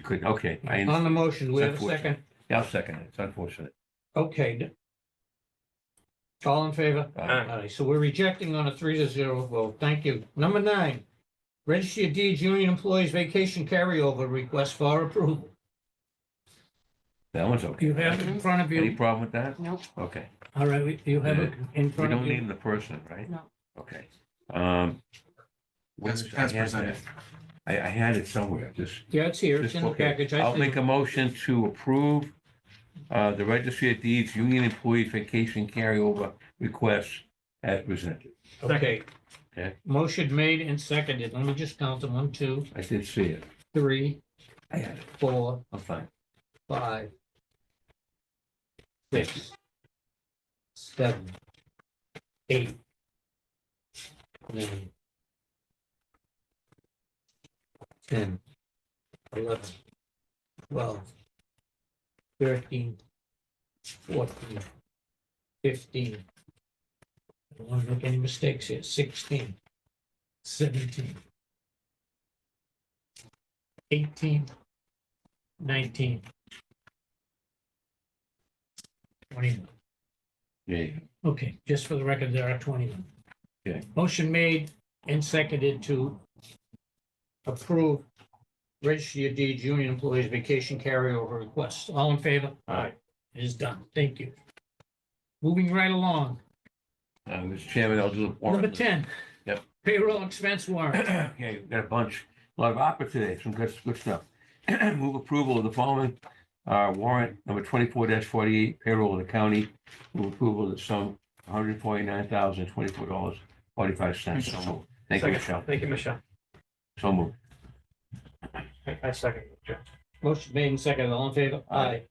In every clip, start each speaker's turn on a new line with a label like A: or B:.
A: couldn't, okay. I
B: On the
A: understand.
B: motion, we have a
A: Except for-
B: second.
A: Yeah, I'll second it. It's unfortunate.
B: Okay. All in favor?
A: Uh,
B: Aye, so we're rejecting on a three to zero vote. Thank you. Number nine, register your deeds union employees vacation carryover request for approval.
A: That one's okay.
B: You have it in front of
A: Any
B: you.
A: problem with that?
C: Nope.
A: Okay.
B: All right, we- you have it in
A: We
B: front
A: don't
B: of
A: name
B: you.
A: the person, right?
C: No.
A: Okay. Um. where
D: As-
A: is- I
D: as
A: had
D: presented.
A: that. I, I had it somewhere, just.
B: Yeah, it's here.
A: just
B: It's in the
A: okay.
B: package. I
A: I'll
B: see.
A: make a motion to approve uh, the registry of deeds, union employees vacation carryover requests as presented.
B: Okay.
A: Okay.
B: Motion made and seconded. Let me just count them. One, two,
A: I did see it.
B: three,
A: I had it.
B: four,
A: I'm fine.
B: five, six, seven, eight, nine, ten, eleven, twelve, thirteen, fourteen, fifteen. I don't want to make any mistakes here. Sixteen, seventeen, eighteen, nineteen, twenty-one.
A: Yeah.
B: Okay, just for the record, there are twenty-one.
A: Okay.
B: Motion made and seconded to approve Register of Deeds Union Employees Vacation Carryover Request. All in favor? Aye. It is done. Thank you. Moving right along,
A: Uh, Mr. Chairman, I'll do the warrant.
B: number ten.
A: Yep.
B: Payroll expense warrant.
A: Yeah, you got a bunch, a lot of opera today, some good, good stuff. Move approval of the following uh, warrant number twenty-four forty-eight payroll of the county. Move approval of the sum one hundred forty-nine thousand twenty-four dollars forty-five cents. So moved. Thank you, Michelle.
E: Thank you, Michelle.
A: So moved.
E: I I second. it, Joe.
B: Motion made and seconded. All in favor?
A: Aye.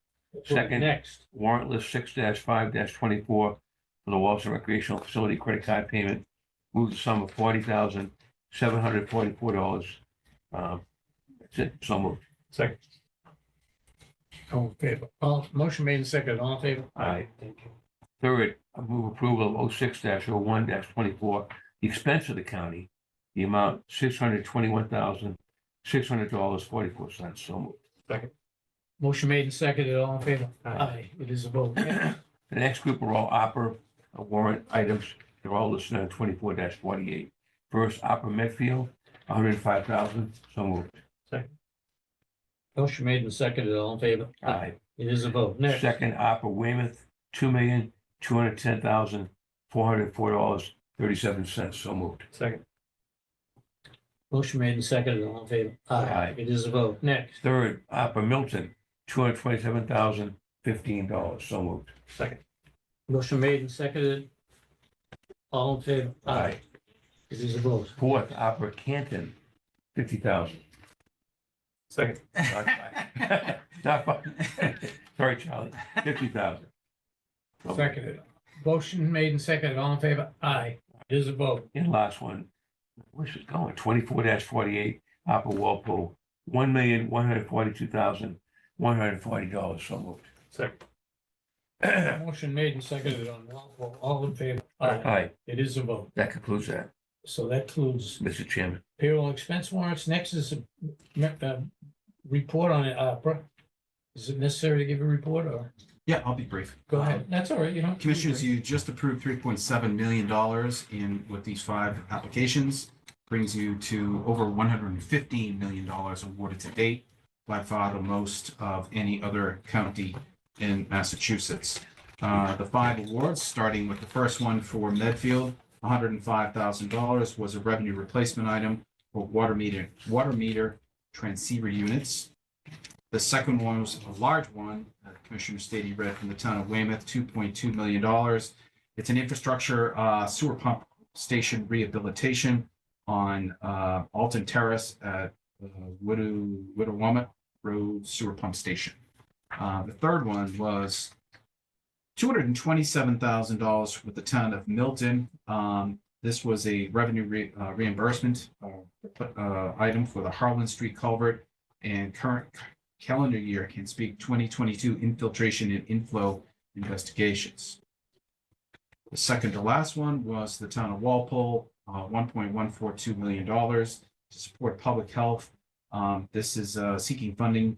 A: Second.
B: Next,
A: Warrant list six five twenty-four for the Walton Recreational Facility credit card payment. Move the sum of forty thousand seven hundred forty-four dollars. Um, That's it. So moved.
E: Second.
B: all in favor. All, motion made and seconded. All in favor?
A: Aye. Third, I move approval of oh 6 one twenty-four, the expense of the county, the amount six hundred twenty-one thousand, six hundred dollars, forty-four cents. So moved.
B: Motion made and seconded. All in favor?
E: Aye.
B: It is a vote.
A: The next group are all opera uh, warrant items. They're all listed on twenty-four forty-eight. First, opera Medfield, one hundred and five thousand. So moved.
B: Motion made and seconded, all in favor?
A: Aye.
B: It is a vote. Uh, Next,
A: Second, opera Weymouth, two million, two hundred ten thousand, four hundred four dollars, thirty-seven cents. So moved.
E: Second.
B: motion made and seconded, all in favor?
A: Aye.
B: It is a vote. Next,
A: Third, opera Milton, two hundred twenty-seven thousand, fifteen dollars. So moved.
E: Second.
B: motion made and seconded, all in favor?
A: Aye.
B: It is a vote.
A: Fourth, Opera Canton, fifty thousand.
E: Second.
A: Not fun. Sorry, Charlie, fifty thousand.
B: Seconded. Motion made and seconded, all in favor? Aye. It is a vote.
A: And last one, where's it going? Twenty-four forty-eight, Opera Walpole, one million, one hundred forty-two thousand, one hundred forty dollars, so moved.
E: Second.
B: Motion made and seconded on all, all in favor?
A: Aye,
B: It is a vote.
A: that concludes that,
B: So that includes
A: Mr. Chairman.
B: payroll expense warrants. Next is a, uh, report on it, opera. Is it necessary to give a report or?
D: Yeah, I'll be brief.
B: Go ahead. That's all right, you know.
D: Commissioners, you just approved three point seven million dollars in, with these five applications. Brings you to over one hundred and fifteen million dollars awarded to date, by far the most of any other county in Massachusetts. Uh, the five awards, starting with the first one for Medfield, hundred and five thousand dollars was a revenue replacement item for water meter, water meter transceiver units. The second one was a large one, uh, Commissioner Stady read from the town of Weymouth, two point two million dollars. It's an infrastructure uh, sewer pump station rehabilitation on uh, Alton Terrace at uh, Widow, Widow Womet Road Sewer Pump Station. Uh, The third one was two hundred and twenty-seven thousand dollars with the town of Milton. Um, This was a revenue re- uh, reimbursement uh, uh, item for the Harlan Street culvert and current calendar year can speak twenty twenty-two infiltration and inflow investigations. The second to last one was the town of Walpole, one point one four two million dollars to support public health. Um, this is, uh, seeking funding